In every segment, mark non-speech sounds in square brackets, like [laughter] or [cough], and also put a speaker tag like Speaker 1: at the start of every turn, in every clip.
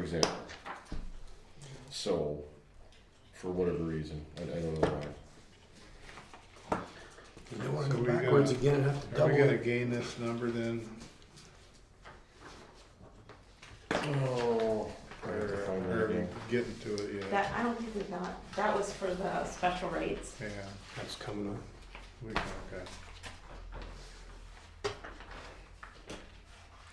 Speaker 1: example. So, for whatever reason, I, I don't know why.
Speaker 2: They wanna
Speaker 3: So
Speaker 2: go
Speaker 3: we gotta-
Speaker 2: backwards again and have to
Speaker 3: Are
Speaker 2: double
Speaker 3: we gonna
Speaker 2: it.
Speaker 3: gain this number then?
Speaker 2: Oh,
Speaker 1: I have to find that
Speaker 3: Or are we
Speaker 1: again.
Speaker 3: getting to it yet?
Speaker 4: That, I don't think we got, that was for the special rates.
Speaker 3: Yeah,
Speaker 2: that's coming up.
Speaker 3: we can, okay.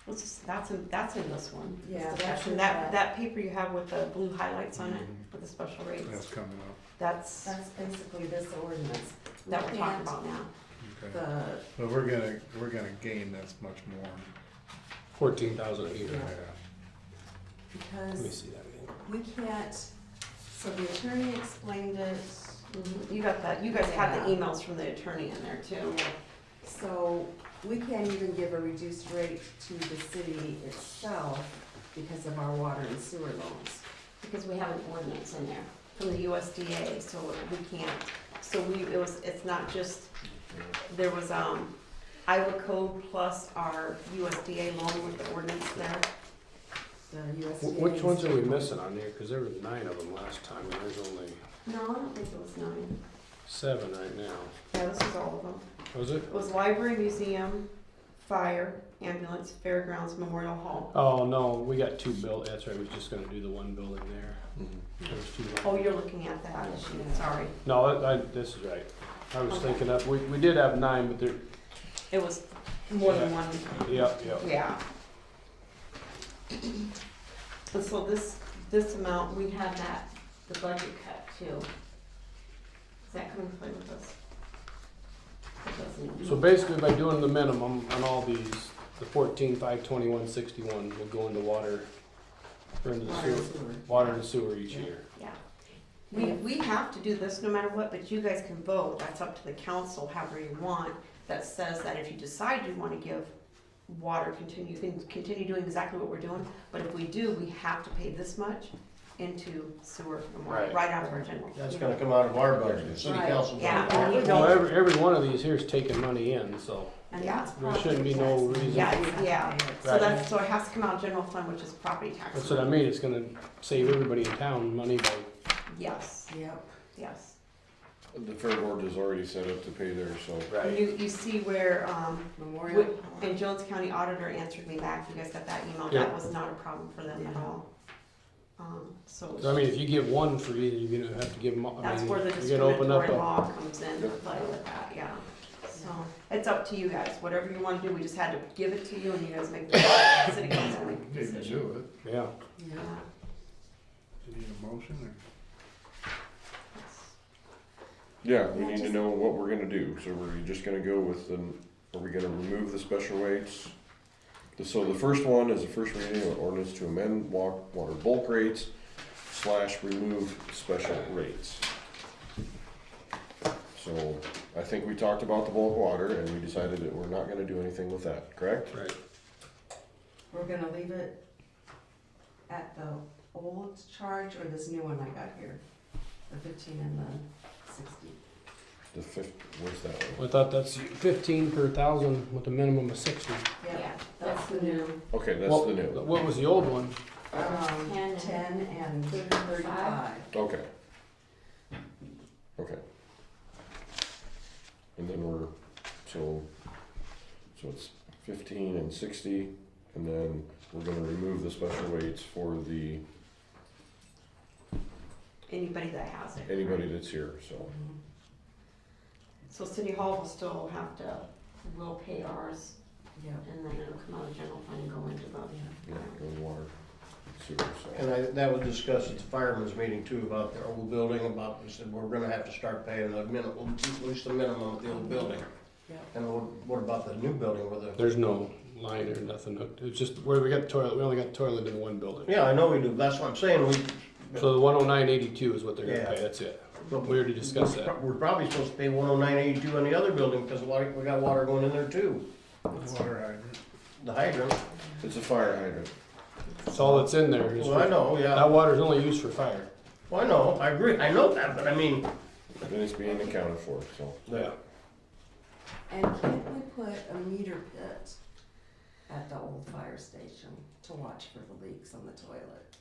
Speaker 4: It's just, that's in, that's in this one. It's
Speaker 5: Yeah,
Speaker 4: the
Speaker 5: that's
Speaker 4: special-
Speaker 5: in
Speaker 4: That,
Speaker 5: that.
Speaker 4: that paper you have with the blue highlights on it,
Speaker 3: Mhm.
Speaker 4: with the special
Speaker 3: That's
Speaker 4: rates,
Speaker 3: coming up,
Speaker 4: that's,
Speaker 5: That's basically this ordinance.
Speaker 4: that we're talking
Speaker 5: And
Speaker 4: about now.
Speaker 3: okay.
Speaker 5: The,
Speaker 3: But we're gonna, we're gonna gain this much more.
Speaker 2: Fourteen thousand a year.
Speaker 3: Yeah.
Speaker 2: Let me
Speaker 5: because
Speaker 2: see that again.
Speaker 5: we can't, so the attorney explained it,
Speaker 4: Mhm. You got that, you guys had the
Speaker 5: Yeah.
Speaker 4: emails from the attorney in there too.
Speaker 5: so we can't even give a reduced rate to the city itself because of our water and sewer loans.
Speaker 4: Because we have an ordinance in there from the USDA, so we can't, so we, it was, it's not just, there was, um, Iowa code plus our USDA loan with the ordinance there.
Speaker 5: The USDA.
Speaker 2: Wh- Which ones are we missing on there? Cause there were nine of them last time and there's only
Speaker 4: No, I don't think it was nine.
Speaker 2: seven right now.
Speaker 4: Yeah, this was all of them.
Speaker 2: Was it?
Speaker 4: It was library, museum, fire, ambulance, fairgrounds, memorial hall.
Speaker 2: Oh, no, we got two bill, that's right, we was just gonna do the one building there. There's two.
Speaker 4: Oh, you're looking at that issue, sorry.
Speaker 2: No, I, I- this is right. I was thinking of, we, we did have nine, but there,
Speaker 4: It was more than one,
Speaker 2: yep, yep.
Speaker 4: yeah. And so this, this amount, we had that, the budget cut too. Is that coming play with us? It doesn't.
Speaker 2: So basically, by doing the minimum on all these, the fourteen, five, twenty-one, sixty-one will go into water, or into the
Speaker 5: Water and
Speaker 2: sewer,
Speaker 5: sewer.
Speaker 2: water and sewer each year.
Speaker 4: Yeah. We, we have to do this no matter what, but you guys can vote, that's up to the council, however you want, that says that if you decide you wanna give water, continue, you can continue doing exactly what we're doing, but if we do, we have to pay this much into sewer, and water,
Speaker 2: Right.
Speaker 4: right out of our general.
Speaker 6: That's gonna come out of our budget, the city
Speaker 5: Right.
Speaker 6: council.
Speaker 4: Yeah,
Speaker 6: budget.
Speaker 4: and we
Speaker 2: Well,
Speaker 4: don't,
Speaker 2: every, every one of these here is taking money in, so
Speaker 5: And
Speaker 4: Yeah.
Speaker 5: that's
Speaker 2: There shouldn't be no
Speaker 5: property tax.
Speaker 2: reason.
Speaker 4: Yeah, it's- yeah. so
Speaker 2: Right.
Speaker 4: that's, so it has to come out of general fund, which is property
Speaker 2: that's
Speaker 4: tax.
Speaker 2: what I mean, it's gonna save everybody in town money by,
Speaker 4: Yes,
Speaker 5: Yep.
Speaker 4: yes.
Speaker 1: The fair board is already set up to pay there, so.
Speaker 4: And you, you see where, um,
Speaker 5: Memorial.
Speaker 4: And Jones County Auditor answered me back, you guys got that email,
Speaker 2: Yeah.
Speaker 4: that was not a problem for them at all. Um, so.
Speaker 2: so I mean, if you give one for either, you're gonna have to give them, all- I
Speaker 4: That's
Speaker 2: mean,
Speaker 4: where the
Speaker 2: you're gonna open up
Speaker 4: discriminatory
Speaker 2: a.
Speaker 4: law comes in, to play with that, yeah. So, it's up to you guys, whatever you wanna do, we just had to give it to you and you guys make [coughs] the, city council make the
Speaker 3: Need to
Speaker 4: decision.
Speaker 3: do
Speaker 2: Yeah,
Speaker 5: Yeah.
Speaker 3: it. Do
Speaker 4: Yeah,
Speaker 3: you need a motion or?
Speaker 4: it's-
Speaker 1: Yeah, we
Speaker 5: Yeah,
Speaker 1: need to
Speaker 5: just-
Speaker 1: know what we're gonna do, so we're just gonna go with the, are we gonna remove the special rates? The- So the first one is the first reading of ordinance to amend wa- water bulk rates slash remove special rates. So, I think we talked about the bulk water and we decided that we're not gonna do anything with that, correct?
Speaker 2: right.
Speaker 5: We're gonna leave it at the old charge or this new one I got here, the fifteen and the sixty.
Speaker 1: The fifth, where's that one?
Speaker 2: I thought that's fifteen per thousand with a minimum of sixty.
Speaker 5: Yep,
Speaker 4: Yeah, that's the new,
Speaker 1: Okay, that's
Speaker 2: What-
Speaker 1: the new,
Speaker 2: What was the old one?
Speaker 5: um,
Speaker 4: Ten and-
Speaker 5: ten and
Speaker 4: Thirty-five.
Speaker 5: thirty-five.
Speaker 1: okay. Okay. And then we're, so, so it's fifteen and sixty, and then we're gonna remove the special rates for the,
Speaker 4: anybody that has it.
Speaker 1: anybody that's here, so.
Speaker 5: Mhm.
Speaker 4: So city hall will still have to, will pay ours
Speaker 5: Yep,
Speaker 4: and then it'll come out of general fund and go into the.
Speaker 5: yeah.
Speaker 1: Yeah, and water, sewer, so.
Speaker 6: And I, that was discussed at the firemen's meeting too, about the old building, about, we said, we're gonna have to start paying the minimum, at least the minimum of the old building.
Speaker 5: Yeah.
Speaker 6: And what, what about the new building with the,
Speaker 2: There's no line or nothing hooked. It's just where we got the toilet. We only got the toilet in one building.
Speaker 6: yeah, I know we do, that's what I'm saying, we.
Speaker 2: So the 10982 is what they're going to
Speaker 6: Yeah.
Speaker 2: pay. That's it.
Speaker 6: but
Speaker 2: We already discussed that.
Speaker 6: We're probably supposed to pay one oh nine eighty-two on the other building, because water, we got water going in there too,
Speaker 3: Water hydrant.
Speaker 6: the hydrant.
Speaker 1: It's a fire hydrant.
Speaker 2: That's all that's in there. Is
Speaker 6: Well, I
Speaker 2: for,
Speaker 6: know, yeah,
Speaker 2: that water's only used for fire.
Speaker 6: well, I know, I agree, I know that, but I mean,
Speaker 1: Then it's being accounted for, so.
Speaker 2: Yeah.
Speaker 5: And can't we put a meter pit at the old fire station to watch for the leaks on the toilet?